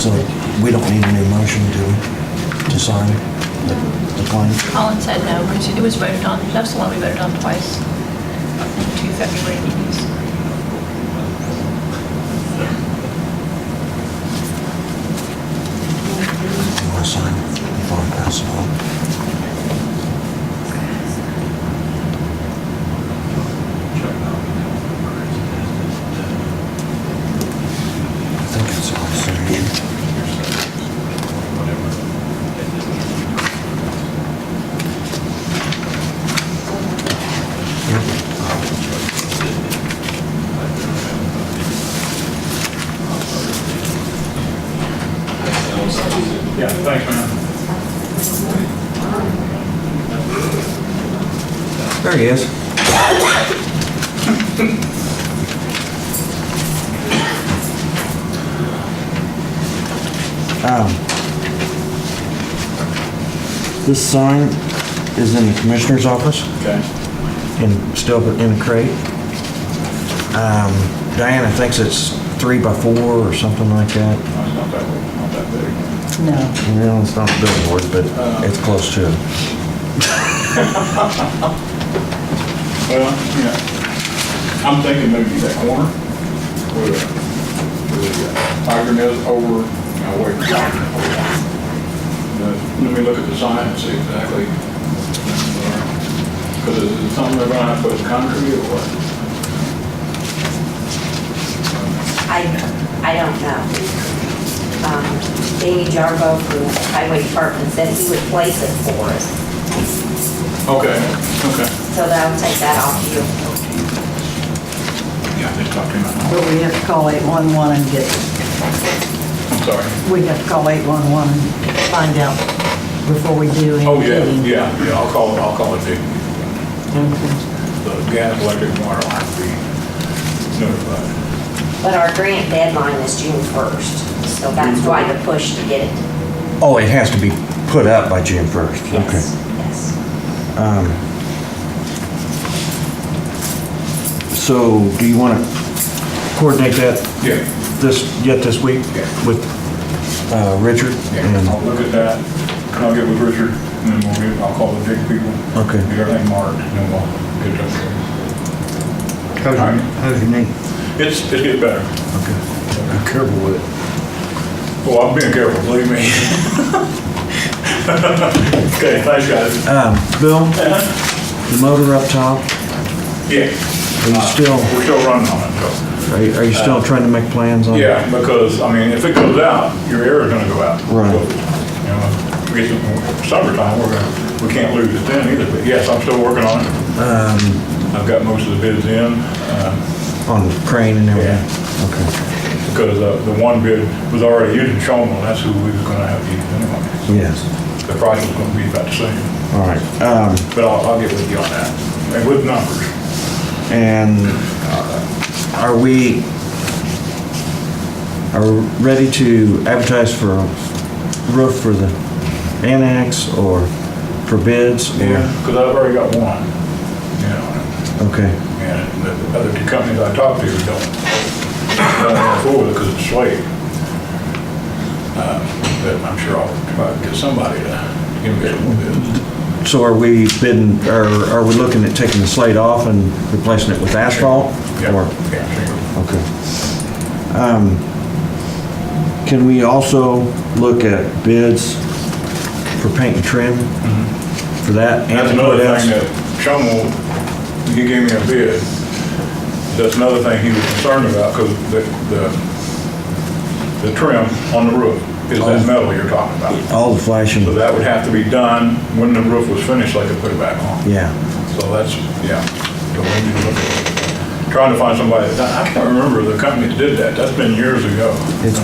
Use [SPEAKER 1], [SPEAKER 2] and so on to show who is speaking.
[SPEAKER 1] So we don't need any motion to, to sign the, the claim?
[SPEAKER 2] Colin said no, because it was voted on, that's the one we voted on twice, in two February meetings.
[SPEAKER 1] You want to sign before I pass it on? I think it's all signed.
[SPEAKER 3] Yeah, thanks, man.
[SPEAKER 1] There he is. Um, This sign is in the commissioner's office
[SPEAKER 3] Okay.
[SPEAKER 1] in, still in a crate. Um, Diana thinks it's three by four or something like that.
[SPEAKER 3] It's Not that, not that big.
[SPEAKER 4] No.
[SPEAKER 1] No, it's not a billboard, but it's close to it.
[SPEAKER 3] Well, yeah. I'm thinking maybe that corner where the- where the uh, tiger nails over, now wait. Let me look at the sign and see exactly. Because is it something they're gonna have to put concrete or what?
[SPEAKER 5] I, I don't know. Um, Jamie Jarbo from the Highway Department said he would place it for us,
[SPEAKER 3] Okay, okay.
[SPEAKER 5] so that'll take that off you.
[SPEAKER 3] Yeah, they talked to me.
[SPEAKER 4] But we have to call 811 and get,
[SPEAKER 3] I'm sorry.
[SPEAKER 4] we have to call 811 and find out before we do anything.
[SPEAKER 3] Oh, yeah, yeah, yeah, I'll call, I'll call it the
[SPEAKER 4] yeah.
[SPEAKER 3] the gas, electric, water line to be notified.
[SPEAKER 5] But our grant deadline is June 1st, so that's why the push to get it.
[SPEAKER 1] Oh, it has to be put up by June first.
[SPEAKER 5] Yes, Yes.
[SPEAKER 1] So do you want to coordinate that
[SPEAKER 3] Yeah,
[SPEAKER 1] this, yet this week
[SPEAKER 3] Yeah.
[SPEAKER 1] with uh, Richard?
[SPEAKER 3] yeah, I'll
[SPEAKER 1] And-
[SPEAKER 3] look at that, and I'll get with Richard, and then we'll get, I'll call the big people.
[SPEAKER 1] Okay.
[SPEAKER 3] Get everything marked, and then we'll get it up there.
[SPEAKER 1] How's your, how's your knee?
[SPEAKER 3] It's, it's getting better.
[SPEAKER 1] Okay. Be careful with it.
[SPEAKER 3] Well, I'm being careful, believe me. Okay, thanks, guys.
[SPEAKER 1] Um, Bill, the motor up top, are
[SPEAKER 3] Yeah,
[SPEAKER 1] you still,
[SPEAKER 3] we're still running on it, so.
[SPEAKER 1] are you- are you still trying to make plans on?
[SPEAKER 3] Yeah, because, I mean, if it goes out, your air is gonna go out.
[SPEAKER 1] Right.
[SPEAKER 3] You know, we get some- summertime, we're gonna, we can't lose it then either, but yes, I'm still working on it.
[SPEAKER 1] Um,
[SPEAKER 3] I've got most of the bids in, uh,
[SPEAKER 1] On the crane and everything? Okay,
[SPEAKER 3] because uh, the one bid was already, you didn't show them, well, that's who we was gonna have used anyway.
[SPEAKER 1] yes,
[SPEAKER 3] The price was gonna be about the same,
[SPEAKER 1] all right. Um,
[SPEAKER 3] but I'll, I'll get with you on that, and with numbers.
[SPEAKER 1] And are we, are we ready to advertise for a roof for the annex or for bids? or-
[SPEAKER 3] Because I've already got one, you know,
[SPEAKER 1] Okay,
[SPEAKER 3] And the other two companies I talked to don't, don't move forward because it's slate. Uh, But I'm sure I'll try to get somebody to give me a little bit.
[SPEAKER 1] so are we bidding, or are we looking at taking the slate off and replacing it with asphalt?
[SPEAKER 3] Yeah,
[SPEAKER 1] Or-
[SPEAKER 3] yeah,
[SPEAKER 1] Okay. Um, Can we also look at bids for paint and trim for that?
[SPEAKER 3] And Mm-hmm. that's
[SPEAKER 1] and
[SPEAKER 3] another
[SPEAKER 1] what else?
[SPEAKER 3] thing that Shomo, he gave me a bid. That's another thing he was concerned about because the, the, the trim on the roof is that metal you're talking about.
[SPEAKER 1] All the flashing,
[SPEAKER 3] So that would have to be done when the roof was finished, they could put it back on.
[SPEAKER 1] yeah.
[SPEAKER 3] So that's, yeah. So we need to look at it. Trying to find somebody, I can't remember the company that did that, that's been years ago.
[SPEAKER 1] It's